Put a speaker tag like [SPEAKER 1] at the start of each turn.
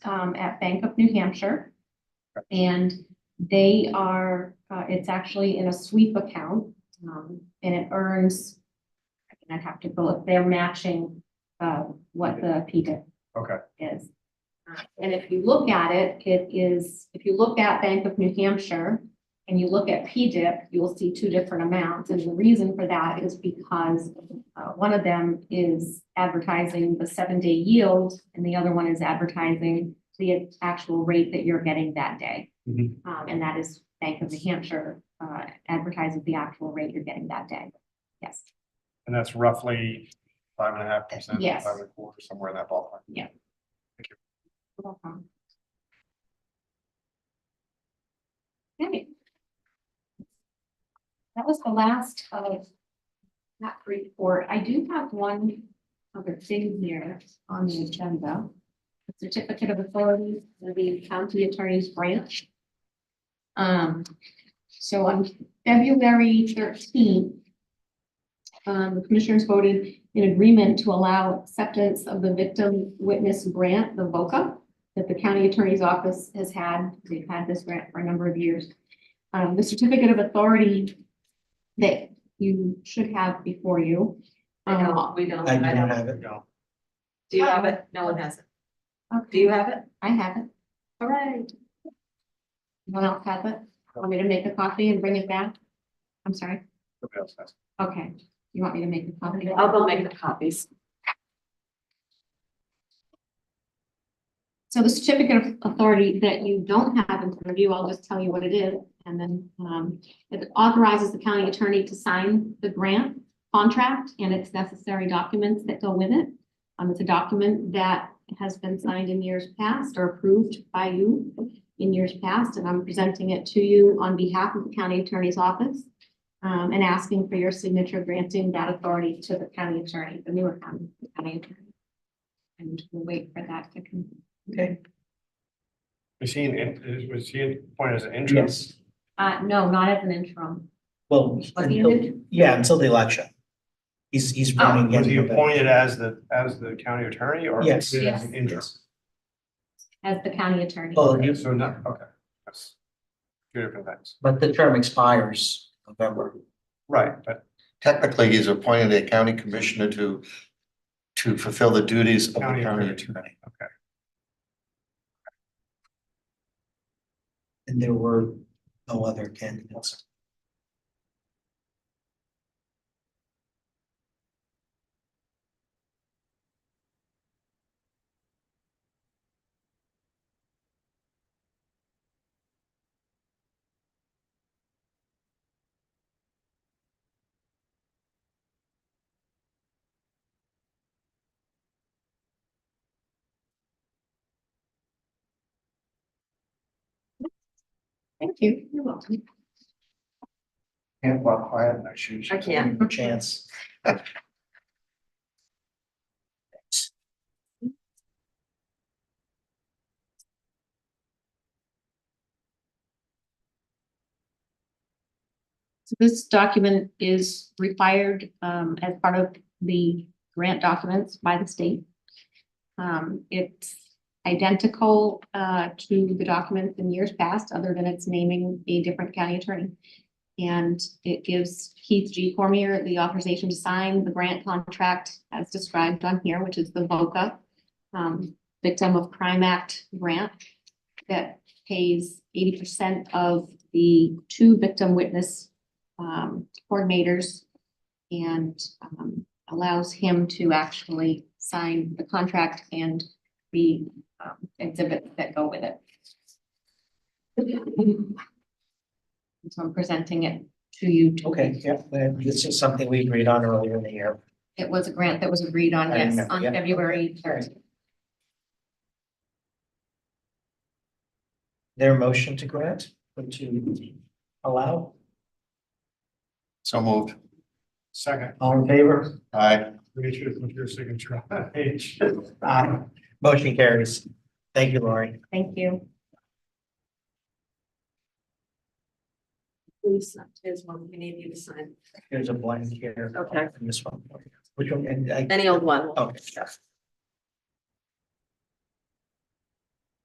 [SPEAKER 1] um, at Bank of New Hampshire. And they are, uh, it's actually in a sweep account, um, and it earns, I'd have to go, they're matching, uh, what the PDIP
[SPEAKER 2] Okay.
[SPEAKER 1] is. Uh, And if you look at it, it is, if you look at Bank of New Hampshire and you look at PDIP, you will see two different amounts. And the reason for that is because uh, one of them is advertising the seven-day yield and the other one is advertising the actual rate that you're getting that day.
[SPEAKER 2] Mhm.
[SPEAKER 1] Um, and that is Bank of New Hampshire, uh, advertises the actual rate you're getting that day. Yes.
[SPEAKER 2] And that's roughly five and a half percent,
[SPEAKER 1] Yes.
[SPEAKER 2] five and a quarter, somewhere in that ballpark.
[SPEAKER 1] Welcome. Okay. That was the last of that report. I do have one other thing here on the agenda. The Certificate of authority for the county attorney's branch. Um, so on February thirteenth, um, the commissioners voted in agreement to allow acceptance of the victim witness grant, the VOCA, that the county attorney's office has had. They've had this grant for a number of years. Um, the certificate of authority that you should have before you.
[SPEAKER 3] I
[SPEAKER 1] Um,
[SPEAKER 3] don't, we don't,
[SPEAKER 4] I
[SPEAKER 3] I don't.
[SPEAKER 4] don't have
[SPEAKER 2] There
[SPEAKER 4] it.
[SPEAKER 2] you go.
[SPEAKER 3] Do you have it? No one has it. Do
[SPEAKER 1] okay,
[SPEAKER 3] you have it?
[SPEAKER 1] I have it.
[SPEAKER 3] All right.
[SPEAKER 1] Anyone else have it? Want me to make a copy and bring it back? I'm sorry.
[SPEAKER 2] Nobody else has.
[SPEAKER 1] Okay, you want me to make a copy?
[SPEAKER 3] I'll go make the copies.
[SPEAKER 1] So the certificate of authority that you don't have in front of you, I'll just tell you what it is, and then, um, it authorizes the county attorney to sign the grant contract and its necessary documents that go with it. Um, it's a document that has been signed in years past or approved by you in years past, and I'm presenting it to you on behalf of the county attorney's office, um, and asking for your signature granting that authority to the county attorney, the newer county county attorney. And we'll wait for that to come.
[SPEAKER 4] Okay.
[SPEAKER 2] Was he, in- in- was he in- appointed as an interim?
[SPEAKER 4] Yes.
[SPEAKER 1] Uh, no, not as an interim.
[SPEAKER 4] Well,
[SPEAKER 1] Was he
[SPEAKER 4] until-
[SPEAKER 1] in?
[SPEAKER 4] yeah, until the election. He's, he's running.
[SPEAKER 2] Was he
[SPEAKER 4] in November.
[SPEAKER 2] appointed as the, as the county attorney or?
[SPEAKER 4] Yes.
[SPEAKER 2] appointed as an
[SPEAKER 1] Yes.
[SPEAKER 2] Interim.
[SPEAKER 1] As the county attorney.
[SPEAKER 4] Oh,
[SPEAKER 2] Okay,
[SPEAKER 4] you-
[SPEAKER 2] So not, okay. That's Two different things.
[SPEAKER 4] But the term expires November.
[SPEAKER 2] Right, but
[SPEAKER 5] technically, he's appointed a county commissioner to, to fulfill the duties of the
[SPEAKER 2] County
[SPEAKER 5] county
[SPEAKER 2] attorney.
[SPEAKER 5] attorney.
[SPEAKER 4] And there were no other candidates.
[SPEAKER 1] Thank you. You're welcome.
[SPEAKER 5] Can't walk quiet in our shoes.
[SPEAKER 3] I can't.
[SPEAKER 4] No Chance.
[SPEAKER 1] So this document is required um as part of the grant documents by the state. Um, it's identical uh to the documents in years past, other than it's naming a different county attorney. And it gives Keith G. Cormier the authorization to sign the grant contract as described on here, which is the VOCA um, Victim of Crime Act grant that pays eighty percent of the two victim witness um, coordinators and um, allows him to actually sign the contract and the um, exhibits that go with it. So I'm presenting it to you. to-
[SPEAKER 4] Okay, yeah, then this is something we agreed on earlier in the year.
[SPEAKER 1] It was a grant that was agreed on,
[SPEAKER 4] I
[SPEAKER 1] yes,
[SPEAKER 4] remember,
[SPEAKER 1] on
[SPEAKER 4] yeah.
[SPEAKER 1] February third.
[SPEAKER 4] Their motion to grant or to allow,
[SPEAKER 5] So moved.
[SPEAKER 2] second,
[SPEAKER 4] all in favor?
[SPEAKER 5] Aye.
[SPEAKER 2] make sure to put your signature on that page.
[SPEAKER 4] Aye. Motion carries. Thank you, Lori.
[SPEAKER 1] Thank you.
[SPEAKER 3] Please, there's one we need you to sign.
[SPEAKER 4] Here's a blank here.
[SPEAKER 3] Okay.
[SPEAKER 4] And this one. Which one? And I-
[SPEAKER 3] Any old one.
[SPEAKER 4] Okay.